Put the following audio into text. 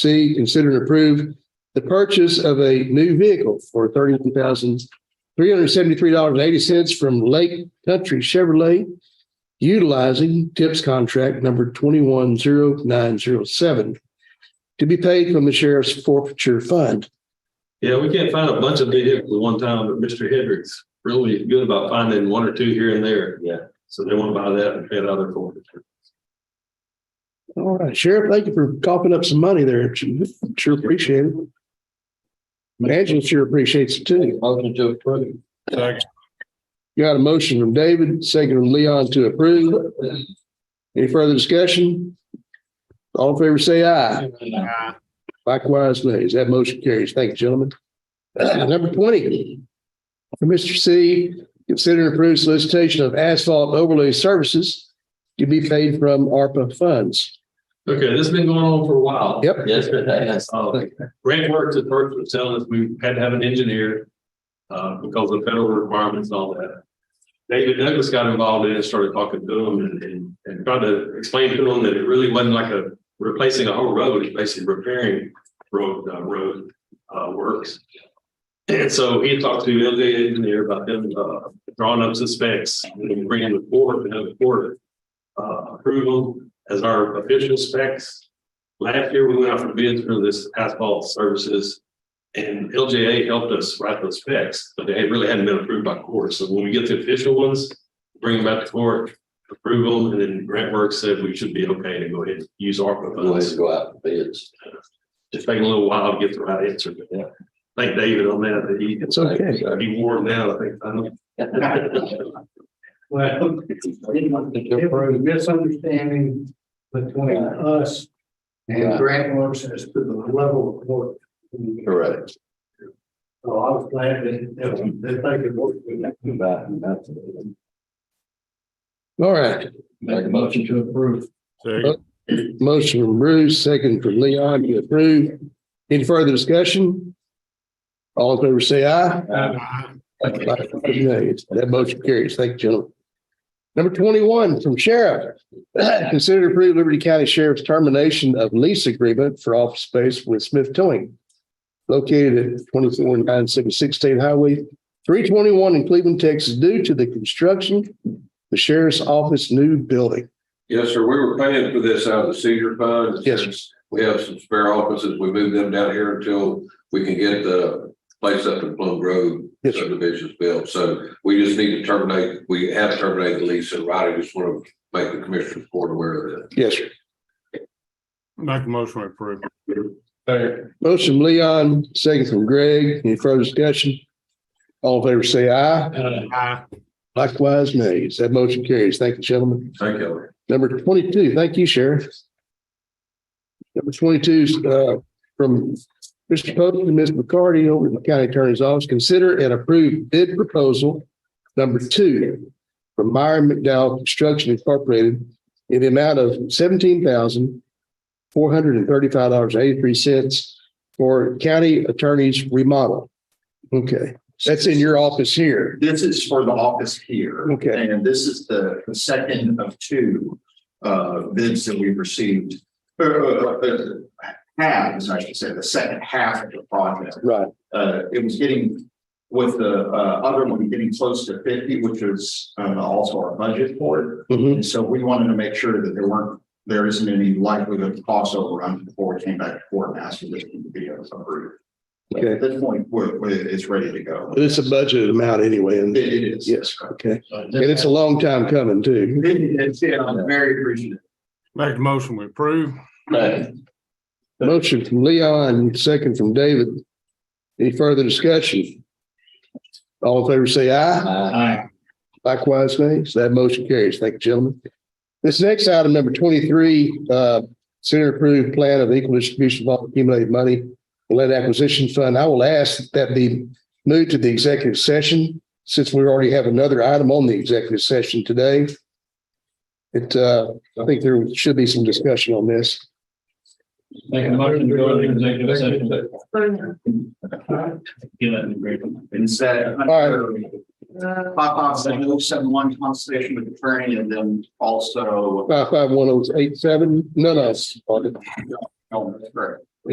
C, consider and approve the purchase of a new vehicle for thirty-one thousand three hundred seventy-three dollars and eighty cents from Lake Country Chevrolet, utilizing TIPS contract number twenty-one zero nine zero seven to be paid from the sheriff's forfeiture fund. Yeah, we can't find a bunch of vehicles at one time, but Mr. Hendricks really good about finding one or two here and there. Yeah. So they want to buy that and pay another for it. All right, Sheriff, thank you for coughing up some money there. Sure appreciate it. Angela sure appreciates it too. Motion to approve. Got a motion from David, second from Leon to approve. Any further discussion? All in favor, say aye. Likewise, nays. That motion carries. Thank you, gentlemen. Number twenty. For Mr. C, consider and approve solicitation of asphalt overlay services to be paid from ARPA funds. Okay, this has been going on for a while. Yep. Yes, it has. Uh, Grant Works at first was telling us we had to have an engineer uh, because of federal requirements and all that. David Douglas got involved in it, started talking to him and, and, and tried to explain to him that it really wasn't like a replacing a whole road, it's basically repairing road, uh, road, uh, works. And so he talked to the LJ engineer about them, uh, drawing up some specs and bringing the board, and have the board uh, approval as our official specs. Last year, we went out for bids for this asphalt services. And LJA helped us write those specs, but they really hadn't been approved by court. So when we get the official ones, bring them back to court, approve them, and then Grant Works said we should be okay to go ahead and use ARPA Go ahead funds and go out for bids. just taking a little while to get the right answer, but yeah. Thank David on that, that he, It's okay. he wore him down, I think. I know. Well, it was a misunderstanding between us and Grant Works as to the level of work. Correct. So I was glad that, that that they could work with that. Make All right. a motion to approve. Motion from Bruce, second from Leon to approve. Any further discussion? All in favor, say aye. Likewise, nays. That motion carries. Thank you, gentlemen. Number twenty-one from Sheriff. Consider to approve Liberty County Sheriff's termination of lease agreement for office space with Smith Towing located at twenty-four nine seven sixteen Highway three twenty-one in Cleveland, Texas, due to the construction of the sheriff's office new building. Yes, sir. We were paying for this out of the seizure fund. Yes, sir. Since We have some spare offices. We moved them down here until we can get the place up in Plum Grove Yes, sir. subdivisions built. So we just need to terminate, we have terminated the lease and Roddy just want to make the commissioner's board aware of that. Yes, sir. Make a motion to approve. Motion from Leon, second from Greg. Any further discussion? All in favor, say aye. Aye. Likewise, nays. That motion carries. Thank you, gentlemen. Thank you. Number twenty-two, thank you, Sheriff. Number twenty-two is uh, from Mr. Pope and Ms. McCarty over at the County Attorney's Office. Consider and approve bid proposal number two from Meyer McDowell Construction Incorporated in the amount of seventeen thousand four hundred and thirty-five dollars eighty-three cents for county attorney's remodel. Okay, that's in your office here. This is for the office here. Okay. And this is the the second of two uh bids that we've received. Uh, uh, uh, Halves, I should say, the second half of the project. Right. Uh, it was getting with the uh other one getting close to fifty, which was uh, also our budget for it. Mhm. And so we wanted to make sure that there weren't, there isn't any likelihood of cost overrun before we came back to court and asked for this to be approved. But Okay. At this point, we're, we're- it's ready to go. But it's a budgeted amount anyway, and It it is. Yes, okay. And it's a long time coming too. It's, yeah, I'm very appreciative. Make a motion we approve. Motion from Leon, second from David. Any further discussion? All in favor, say aye. Aye. Likewise, nays. That motion carries. Thank you, gentlemen. This next item, number twenty-three, uh, Senate approved plan of equal distribution of all accumulated money for lead acquisition fund. I will ask that that be moved to the executive session since we already have another item on the executive session today. It, uh, I think there should be some discussion on this. Make a motion to go into executive session. It's that. All Pop off, uh, seven oh seven one conversation with attorney and then also. uh, Five five one oh eight seven, no, no, Oh, that's correct.